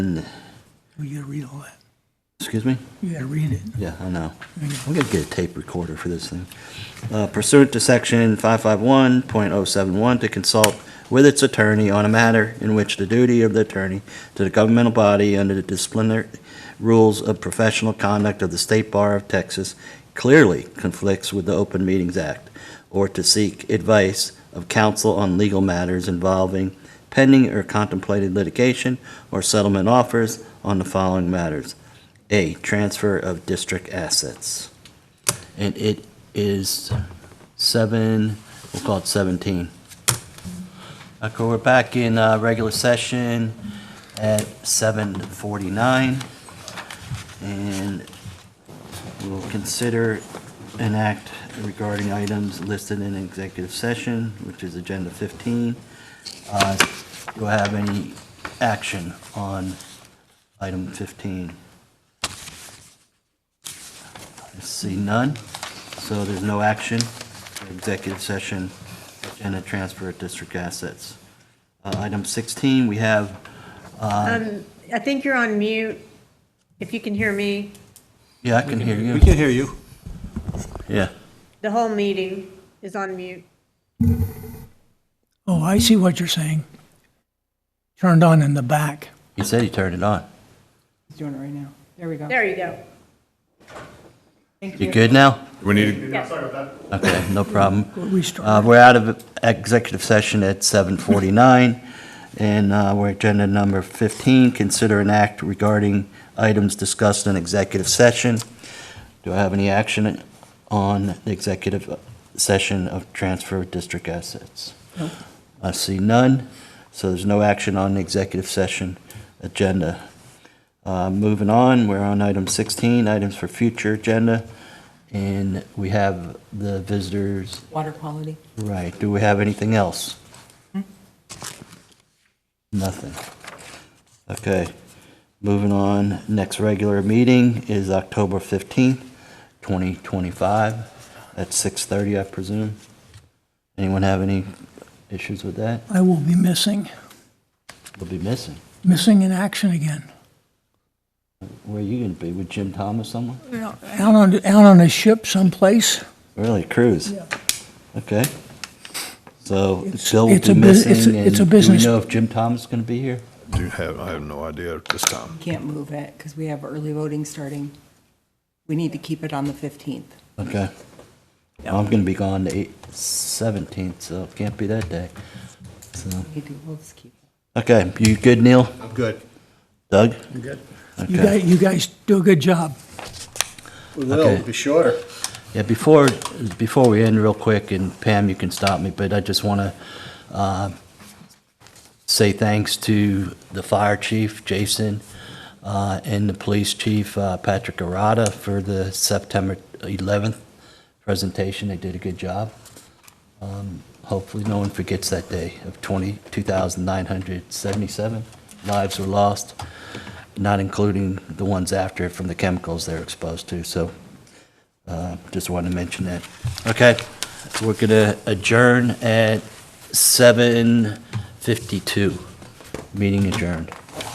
We gotta read all that. Excuse me? You gotta read it. Yeah, I know. I'm gonna get a tape recorder for this thing. Uh, Pursuant to section 551.071, to consult with its attorney on a matter in which the duty of the attorney to the governmental body under the disciplinary rules of professional conduct of the State Bar of Texas clearly conflicts with the Open Meetings Act, or to seek advice of counsel on legal matters involving pending or contemplated litigation or settlement offers on the following matters. A, transfer of district assets. And it is seven, we'll call it 17. Okay, we're back in uh, regular session at 7:49. And we'll consider an act regarding items listed in executive session, which is Agenda 15. Uh, Do I have any action on item 15? I See none, so there's no action, for executive session, and a transfer of district assets. Uh, Item 16, we have, I think you're on mute, if you can hear me, yeah, I can hear We you. can hear you. Yeah. the whole meeting is on mute. Oh, I see what you're saying. Turned on in the back. He said he turned it on. He's doing it right now. There we go. There you go. Thank You you. good now? We need, Okay, no problem. Uh, Restart. We're out of executive session at 7:49, and uh, we're agenda number 15, consider an act regarding items discussed in executive session. Do I have any action on the executive session of transfer of district assets? I see none, so there's no action on the executive session agenda. Uh, Moving on, we're on item 16, items for future agenda, and we have the visitors Water quality. Right, do we have anything else? Nothing. Okay, moving on, next regular meeting is October 15th, 2025, at 6:30, I presume. Anyone have any issues with that? I will be missing, We'll be missing. missing in action again. Where are you going to be, with Jim Thomas somewhere? Out on, out on a ship someplace. Really, cruise? Yeah. Okay. So It's- Bill will it's be a bus- it's a- missing, and it's a do we business- know if Jim Thomas is going to be here? do have, I have no idea at this time. Can't move it because we have early voting starting. We need to keep it on the 15th. Okay. I'm gonna be gone the eight- 17th, so it can't be that day. So, We do, we'll just keep it. okay, you good, Neil? I'm good. Doug? I'm good. You Okay. guys, you guys do a good job. We Okay. will, we'll be shorter. Yeah, before, before we end real quick, and Pam, you can stop me, but I just want to say thanks to the fire chief, Jason, uh, and the police chief, uh, Patrick Arada, for the September 11th presentation. They did a good job. Um, Hopefully, no one forgets that day of 20 2,977 lives were lost, not including the ones after from the chemicals they're exposed to. So uh, Just wanted to mention that. Okay, we're going to adjourn at 7:52. Meeting adjourned.